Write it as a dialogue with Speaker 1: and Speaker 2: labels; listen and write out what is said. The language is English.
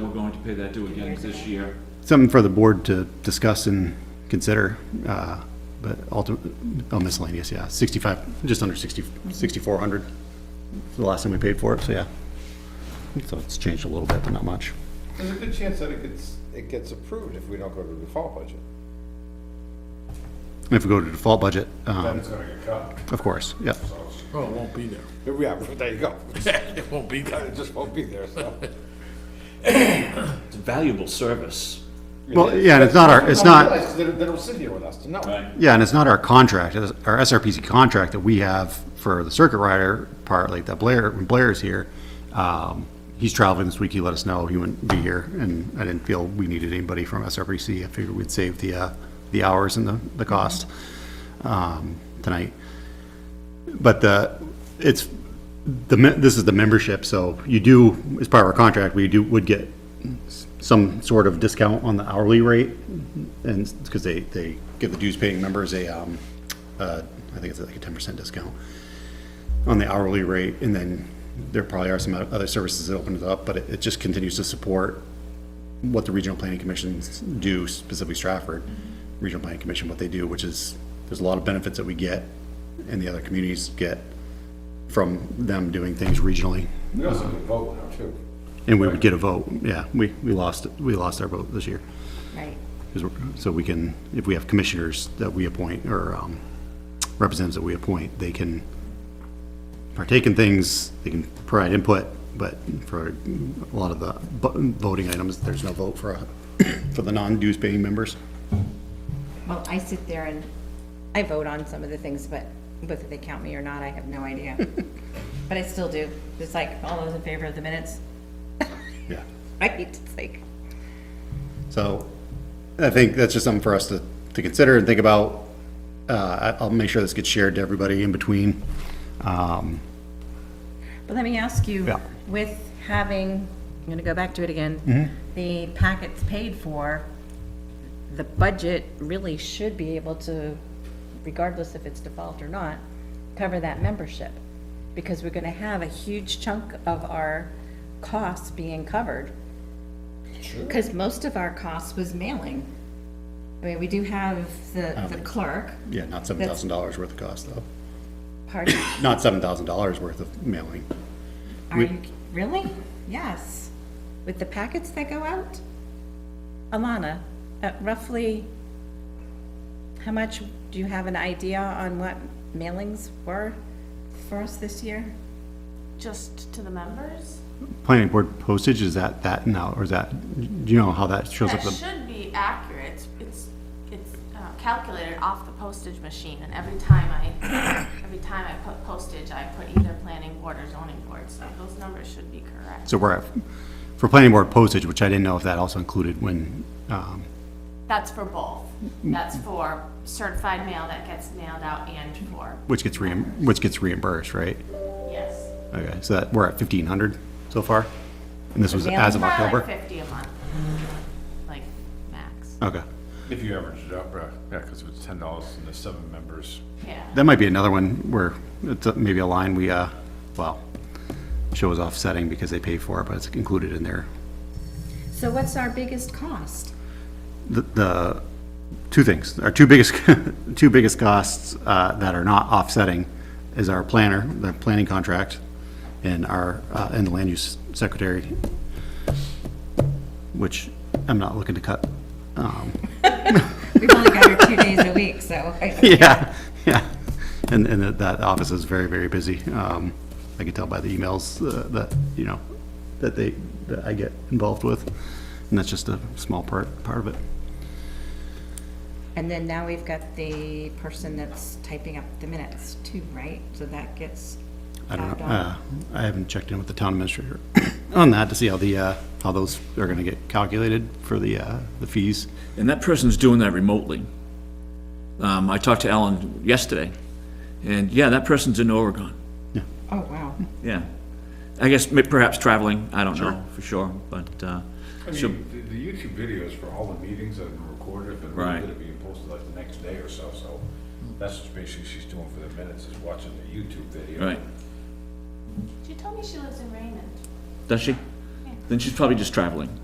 Speaker 1: to pay that due again this year.
Speaker 2: Something for the board to discuss and consider, uh, but ultimately, oh miscellaneous, yeah, 65, just under 60, 6,400 was the last time we paid for it, so yeah. So it's changed a little bit, but not much.
Speaker 3: There's a good chance that it gets, it gets approved if we don't go to the default budget.
Speaker 2: And if we go to default budget,
Speaker 3: Then
Speaker 2: um,
Speaker 3: it's gonna get cut.
Speaker 2: of course, yeah.
Speaker 4: Oh, it won't be there.
Speaker 3: Yeah, there you go.
Speaker 4: It won't be there.
Speaker 3: It just won't be there, so.
Speaker 1: It's a valuable service.
Speaker 2: Well, yeah, and it's not our, it's not,
Speaker 3: Because they don't- they don't sit here with us to know.
Speaker 2: yeah, and it's not our contract, it's our SRPC contract that we have for the circuit rider part, like that Blair, when Blair's here, um, he's traveling this week, he let us know he wouldn't be here, and I didn't feel we needed anybody from SRPC, I figured we'd save the, uh, the hours and the, the cost, um, tonight. But the, it's, the, me- this is the membership, so you do, as part of our contract, we do, would get s- some sort of discount on the hourly rate, and, because they, they give the dues-paying members a, um, uh, I think it's like a ten percent discount on the hourly rate, and then there probably are some other services that open it up, but it, it just continues to support what the regional planning commissions do, specifically Stratford, regional planning commission, what they do, which is, there's a lot of benefits that we get, and the other communities get from them doing things regionally,
Speaker 3: We also can vote now, too.
Speaker 2: and we would get a vote, yeah, we, we lost, we lost our vote this year.
Speaker 5: Right.
Speaker 2: 'Cause we're- So we can, if we have commissioners that we appoint, or um, representatives that we appoint, they can partake in things, they can provide input, but for a lot of the bu- voting items, there's no vote for, uh, for the non-dues paying members.
Speaker 5: Well, I sit there and I vote on some of the things, but whether they count me or not, I have no idea. But I still do. It's like, all those in favor of the minutes,
Speaker 2: Yeah.
Speaker 5: right? It's like,
Speaker 2: So I think that's just something for us to, to consider and think about. Uh, I- I'll make sure this gets shared to everybody in between. Um,
Speaker 5: but let me ask you,
Speaker 2: Yeah.
Speaker 5: with having, I'm gonna go back to it
Speaker 2: Mm-hmm.
Speaker 5: again, the packets paid for, the budget really should be able to, regardless if it's default or not, cover that membership. Because we're gonna have a huge chunk of our costs being covered Because most of our cost was mailing. I mean, we do have the, the clerk,
Speaker 2: Yeah, not seven thousand dollars worth of cost though.
Speaker 5: pardon,
Speaker 2: Not seven thousand dollars worth of mailing.
Speaker 5: are you, really? Yes, with the packets that go out? Alana, at roughly, how much, do you have an idea on what mailings were for us this year?
Speaker 6: Just to the members?
Speaker 2: planning board postage, is that that now, or is that, do you know how that shows up?
Speaker 6: That
Speaker 2: the-
Speaker 6: should be accurate. It's- It's, it's uh, calculated off the postage machine, and every time I, every time I put postage, I put either planning board or zoning board, so those numbers should be correct.
Speaker 2: So we're, at- for planning board postage, which I didn't know if that also included when, um,
Speaker 6: That's for both.
Speaker 2: Mm-hmm.
Speaker 6: That's for certified mail that gets mailed out and for,
Speaker 2: which gets reimb, which gets reimbursed, right?
Speaker 6: yes.
Speaker 2: Okay, so that, we're at fifteen hundred so far? And this was as of
Speaker 6: Probably like
Speaker 2: October?
Speaker 6: Fifty a month, like, max,
Speaker 2: Okay.
Speaker 3: If you average it up, uh, yeah, because it's ten dollars and there's seven members.
Speaker 6: yeah.
Speaker 2: That might be another one where it's uh, maybe a line we, uh, well, shows offsetting because they pay for it, but it's included in there.
Speaker 5: So what's our biggest cost?
Speaker 2: the- the, two things, our two biggest, two biggest costs uh, that are not offsetting is our planner, the planning contract, and our, uh, and the land use secretary, which I'm not looking to cut. Um,
Speaker 5: We've only got her two days a week, so I-
Speaker 2: Yeah, yeah, and, and that- that office is very, very busy. Um, I can tell by the emails uh, that, you know, that they, that I get involved with, and that's just a small part, part of it.
Speaker 5: And then now we've got the person that's typing up the minutes too, right? So that gets
Speaker 2: I don't
Speaker 5: added
Speaker 2: know,
Speaker 5: on.
Speaker 2: uh, I haven't checked in with the town administrator on that to see how the, uh, how those are gonna get calculated for the, uh, the fees.
Speaker 7: And that person's doing that remotely. Um, I talked to Alan yesterday, and yeah, that person's in Oregon.
Speaker 5: Oh, wow.
Speaker 7: Yeah. I guess ma- perhaps traveling, I don't know for sure, but, uh,
Speaker 3: I
Speaker 7: so,
Speaker 3: mean, the- the YouTube videos for all the meetings have been recorded, but
Speaker 7: Right.
Speaker 3: they're being posted like the next day or so, so that's what basically she's doing for the minutes, is watching the YouTube video.
Speaker 7: right.
Speaker 6: She told me she lives in Raymond.
Speaker 7: Does she? Then she's probably just traveling.